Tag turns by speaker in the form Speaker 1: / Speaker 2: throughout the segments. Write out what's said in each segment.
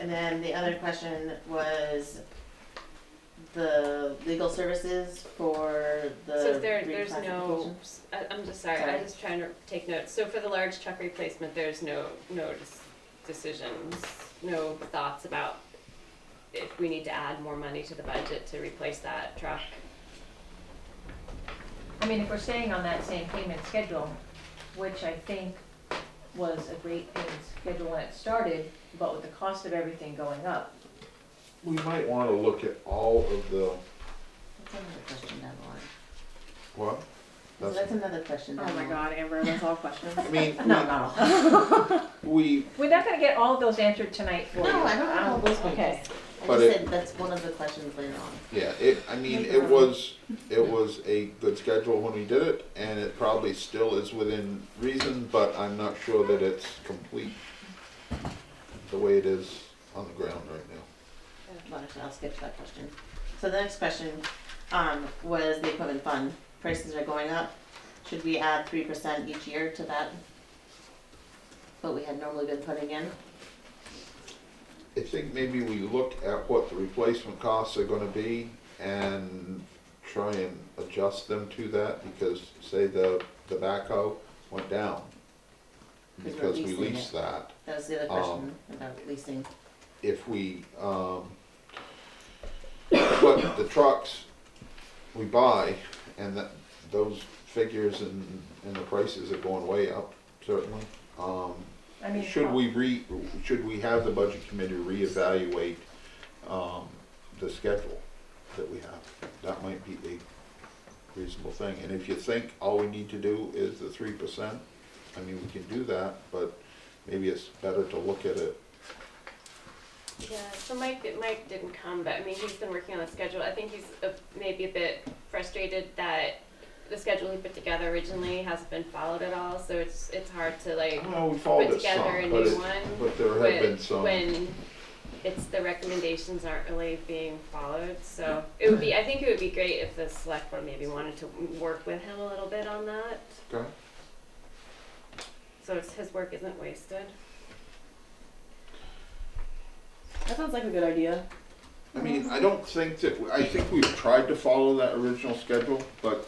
Speaker 1: And then the other question was the legal services for the
Speaker 2: So there, there's no,
Speaker 1: reclassification?
Speaker 2: I- I'm just sorry,
Speaker 1: Sorry.
Speaker 2: I'm just trying to take notes. So for the large truck replacement, there's no, no dis- decisions, no thoughts about if we need to add more money to the budget to replace that truck?
Speaker 3: I mean, if we're staying on that same payment schedule, which I think was a great payment schedule when it started, but with the cost of everything going up.
Speaker 4: We might want to look at all of the,
Speaker 1: That's another question down the line.
Speaker 4: what?
Speaker 1: So that's another question down
Speaker 5: Oh
Speaker 1: the
Speaker 5: my
Speaker 1: line.
Speaker 5: god, Amber, that's all questions.
Speaker 4: I mean,
Speaker 1: No, not all.
Speaker 4: we,
Speaker 3: We're not gonna get all of those answered tonight for you.
Speaker 1: No, I don't have all those
Speaker 3: Um, Okay.
Speaker 1: I
Speaker 4: But
Speaker 1: just
Speaker 4: it-
Speaker 1: said that's one of the questions later on.
Speaker 4: yeah, it, I mean, it was, it was a good schedule when we did it, and it probably still is within reason, but I'm not sure that it's complete the way it is on the ground right now.
Speaker 1: Well, actually, I'll skip that question. So the next question, um, was the equipment fund. Prices are going up. Should we add three percent each year to that? What we had normally been putting in?
Speaker 4: I think maybe we look at what the replacement costs are gonna be and try and adjust them to that, because say the, the backhoe went down
Speaker 1: Because we're
Speaker 4: because we
Speaker 1: leasing it.
Speaker 4: leased that. Um,
Speaker 1: That was the other question about leasing.
Speaker 4: if we, um, put the trucks we buy and that, those figures and, and the prices are going way up, certainly. Um,
Speaker 3: I mean, uh,
Speaker 4: should we re, should we have the budget committee reevaluate, um, the schedule that we have? That might be a reasonable thing, and if you think all we need to do is the three percent, I mean, we can do that, but maybe it's better to look at it
Speaker 2: Yeah, so Mike, Mike didn't come, but I mean, he's been working on the schedule. I think he's uh, maybe a bit frustrated that the schedule he put together originally hasn't been followed at all, so it's, it's hard to like
Speaker 4: Well, we followed
Speaker 2: Put
Speaker 4: it some,
Speaker 2: together a
Speaker 4: but,
Speaker 2: new
Speaker 4: it-
Speaker 2: one,
Speaker 4: but there have
Speaker 2: when,
Speaker 4: been some.
Speaker 2: when it's the recommendations aren't really being followed. So it would be, I think it would be great if the select board maybe wanted to work with him a little bit on that.
Speaker 4: Okay.
Speaker 2: So it's, his work isn't wasted.
Speaker 5: That sounds like a good idea.
Speaker 4: I
Speaker 2: Mhm.
Speaker 4: mean, I don't think that, I think we've tried to follow that original schedule, but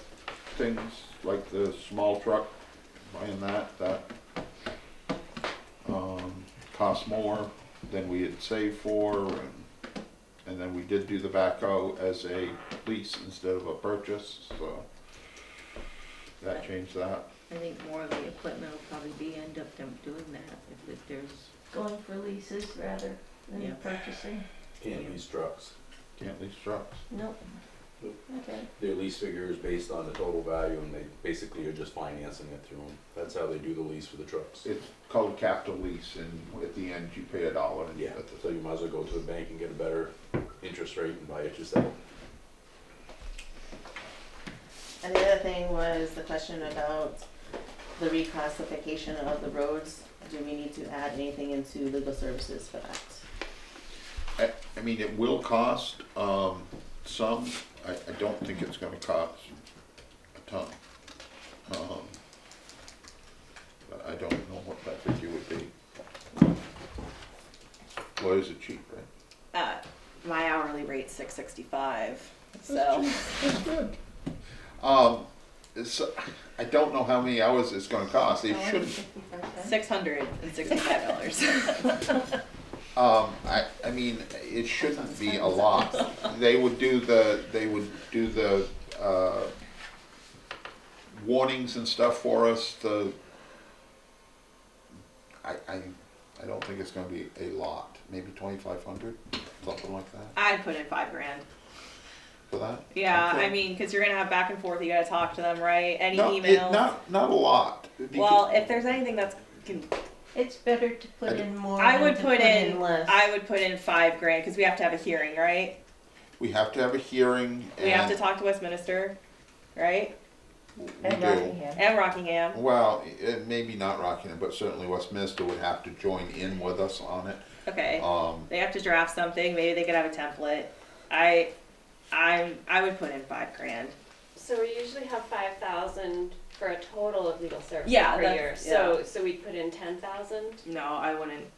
Speaker 4: things like the small truck, buying that, that, um, cost more than we had saved for, and, and then we did do the backhoe as a lease instead of a purchase, so that changed that.
Speaker 6: I think more of the equipment will probably be, end up them doing that, if, if there's,
Speaker 3: Going for leases rather
Speaker 2: Mm.
Speaker 6: Yeah.
Speaker 3: purchasing?
Speaker 7: Can't lease trucks.
Speaker 4: Can't lease trucks.
Speaker 3: Nope.
Speaker 7: Nope.
Speaker 3: Okay.
Speaker 7: Their lease figure is based on the total value and they basically are just financing it through them. That's how they do the lease for the trucks.
Speaker 4: It's called capital lease, and at the end, you pay a dollar. and
Speaker 7: Yeah,
Speaker 4: that's it.
Speaker 7: so you might as well go to the bank and get a better interest rate and buy it yourself.
Speaker 1: And the other thing was the question about the reclassification of the roads. Do we need to add anything into legal services for that?
Speaker 4: I, I mean, it will cost, um, some, I, I don't think it's gonna cost a ton. Um, But I don't know what that figure would be. Lawyers are cheap, right?
Speaker 5: Uh, my hourly rate's six sixty-five, so.
Speaker 4: Um, it's, I don't know how many hours it's gonna cost, they shouldn't,
Speaker 5: Six hundred and sixty-five dollars.
Speaker 4: Um, I, I mean, it shouldn't be a lot. They would do the, they would do the, uh, warnings and stuff for us, the, I, I, I don't think it's gonna be a lot, maybe twenty-five hundred, something like that,
Speaker 5: I'd put in five grand.
Speaker 4: for that?
Speaker 5: Yeah,
Speaker 4: Okay.
Speaker 5: I mean, cause you're gonna have back and forth, you gotta talk to them, right? Any
Speaker 4: No, it-
Speaker 5: emails?
Speaker 4: Not, not a lot. because-
Speaker 5: Well, if there's anything that's, can-
Speaker 6: it's better to put in more
Speaker 5: I
Speaker 6: than
Speaker 5: would
Speaker 6: to
Speaker 5: put in,
Speaker 6: less.
Speaker 5: I would put in five grand, cause we have to have a hearing, right?
Speaker 4: We have to have a hearing and.
Speaker 5: We have to talk to Westminster, right?
Speaker 4: we
Speaker 3: And
Speaker 4: do.
Speaker 3: Rockingham.
Speaker 5: And Rockingham.
Speaker 4: Well, it, maybe not Rockingham, but certainly Westminster would have to join in with us on it.
Speaker 5: Okay.
Speaker 4: Um,
Speaker 5: They have to draft something. Maybe they could have a template. I, I'm, I would put in five grand.
Speaker 2: So we usually have five thousand for a total of legal services
Speaker 5: Yeah,
Speaker 2: per
Speaker 5: that's-
Speaker 2: year. So, so we put in ten thousand.
Speaker 5: No, I wouldn't.